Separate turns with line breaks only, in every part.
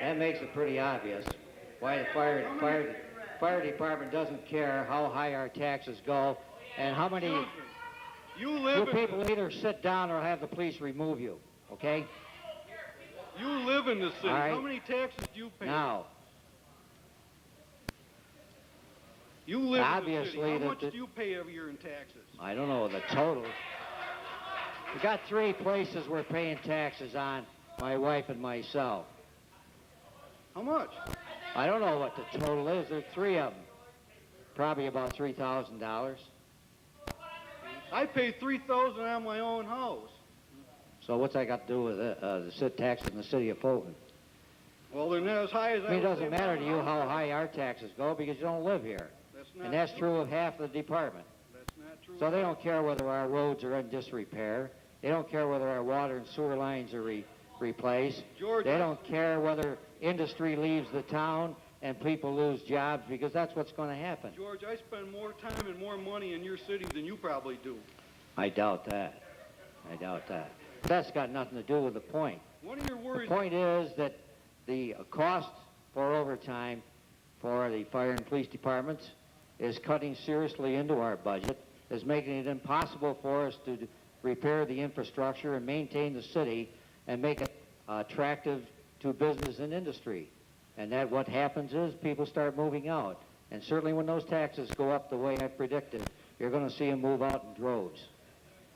That makes it pretty obvious why the fire, fire, fire department doesn't care how high our taxes go and how many
You
you
live, in,
people either sit down or have the police remove you. Okay?
you live in the city.
All right.
How many taxes do you pay?
Now,
you live in the
obviously
city.
the-
How much
the-
do you pay every year in taxes?
I don't know the total. We got three places we're paying taxes on, my wife and myself.
How much?
I don't know what the total is. There's three of them. Probably about three thousand dollars.
I pay three thousand on my own house.
So what's that got to do with uh, uh, the sit tax in the city of Fulton?
Well, they're not as high as
I mean, it
would pay
doesn't
my
matter to you
house.
how high our taxes go because you don't live here,
That's not
and that's
true.
true of half the department.
That's not true.
So they don't care whether our roads are in disrepair. They don't care whether our water and sewer lines are re- replaced.
George,
They don't care whether industry leaves the town and people lose jobs because that's what's going to happen.
George, I spend more time and more money in your city than you probably do.
I doubt that. I doubt that. That's got nothing to do with the point.
One of your
The
worries.
point is that the uh, cost for overtime for the fire and police departments is cutting seriously into our budget, is making it impossible for us to d- repair the infrastructure and maintain the city and make it uh, attractive to business and industry. And that what happens is people start moving out. And certainly when those taxes go up the way I predicted, you're going to see them move out in droves.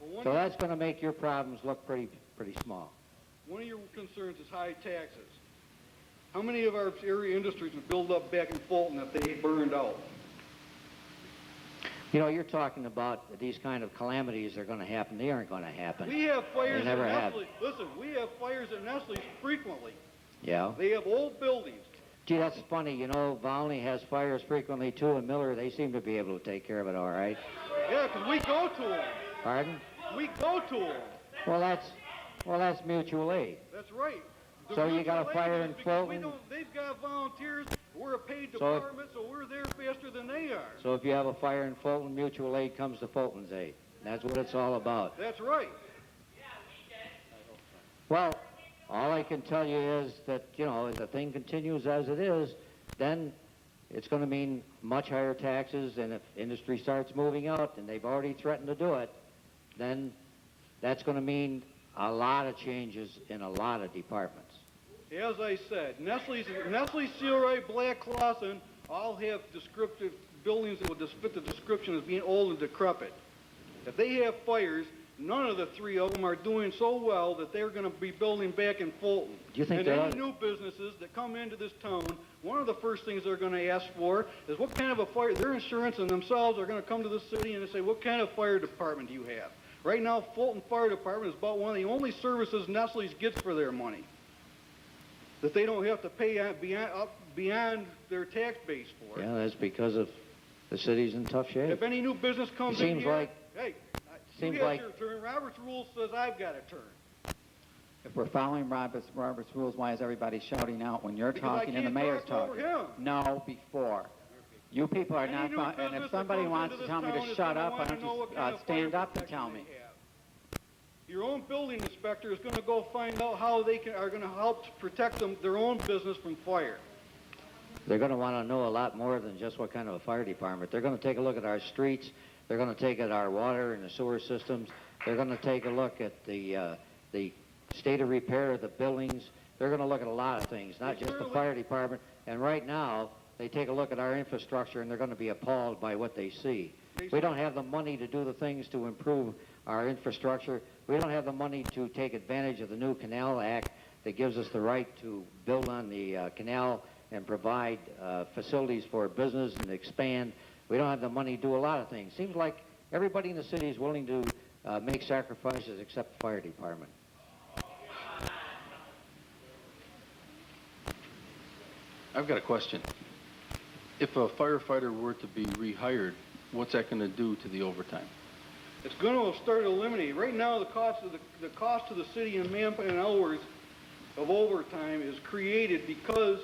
well, one,
So that's going to make your problems look pretty, pretty small.
one of your concerns is high taxes. How many of our area industries would build up back in Fulton if they burned out?
You know, you're talking about these kind of calamities are going to happen. They aren't going to happen.
We have fires
never
at
have.
Nestle. Listen, we have fires at Nestle frequently.
Yeah.
They have old buildings.
Gee, that's funny. You know, Valney has fires frequently too, and Miller. They seem to be able to take care of it all right.
Yeah, 'cause we go to them.
Pardon?
We go to them.
Well, that's well, that's mutual aid.
That's right. The
So you
reason
got a
they
fire
do
in
is because we
Fulton?
don't- They've got volunteers. We're a paid
So if-
department, so we're there faster than they are.
So if you have a fire in Fulton, mutual aid comes to Fulton's aid. That's what it's all about.
That's right.
Well, all I can tell you is that, you know, if the thing continues as it is, then it's going to mean much higher taxes, and if industry starts moving out, and they've already threatened to do it, then that's going to mean a lot of changes in a lot of departments.
As I said, Nestle's, Nestle, Sealy, Black Clausen all have descriptive buildings that would just fit the description as being old and decrepit. If they have fires, none of the three of them are doing so well that they're going to be building back in Fulton.
Do you think
and
they
any
ought-
new businesses that come into this town, one of the first things they're going to ask for is what kind of a fire, their insurance and themselves are going to come to the city and say, what kind of fire department do you have? Right now, Fulton Fire Department is about one of the only services Nestle's gets for their money that they don't have to pay out beyond, up beyond their tax base for. it.
Yeah, that's because of the city's in tough shape.
If any new business comes
It
in
seems
here,
like-
hey, I-
seems
you got
like-
your turn. Robert's rule says I've got a turn.
If we're following Robert's, Robert's rules, why is everybody shouting out when you're
Because I
talking and the
can't
mayor's
talk over
talking? No, before. You people are
Any
not,
new
fo- and
business
if
that
somebody
comes
wants to
into this
tell me
town is
to shut
gonna
up,
wanna
why don't
know
you
what kind
uh,
of
stand
fire
up and
protection
tell
they
me?
have. Your own building inspector is gonna go find out how they can, are gonna help protect them, their own business from fire.
They're going to want to know a lot more than just what kind of a fire department. They're going to take a look at our streets. They're going to take at our water and the sewer systems. They're going to take a look at the uh, the state of repair of the buildings. They're going to look at a lot of things, not just the
Surely.
fire department. And right now, they take a look at our infrastructure and they're going to be appalled by what they see. We don't have the money to do the things to improve our infrastructure. We don't have the money to take advantage of the new Canal Act that gives us the right to build on the uh, canal and provide uh, facilities for business and expand. We don't have the money to do a lot of things. Seems like everybody in the city is willing to uh, make sacrifices except the fire department.
I've got a question. If a firefighter were to be rehired, what's that going to do to the overtime?
It's going to start eliminating. Right now, the cost of the, the cost to the city in man and hours of overtime is created because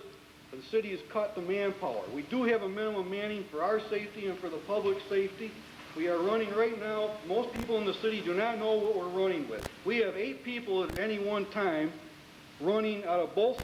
the city has cut the manpower. We do have a minimum manning for our safety and for the public safety. We are running right now, most people in the city do not know what we're running with. We have eight people at any one time running out of both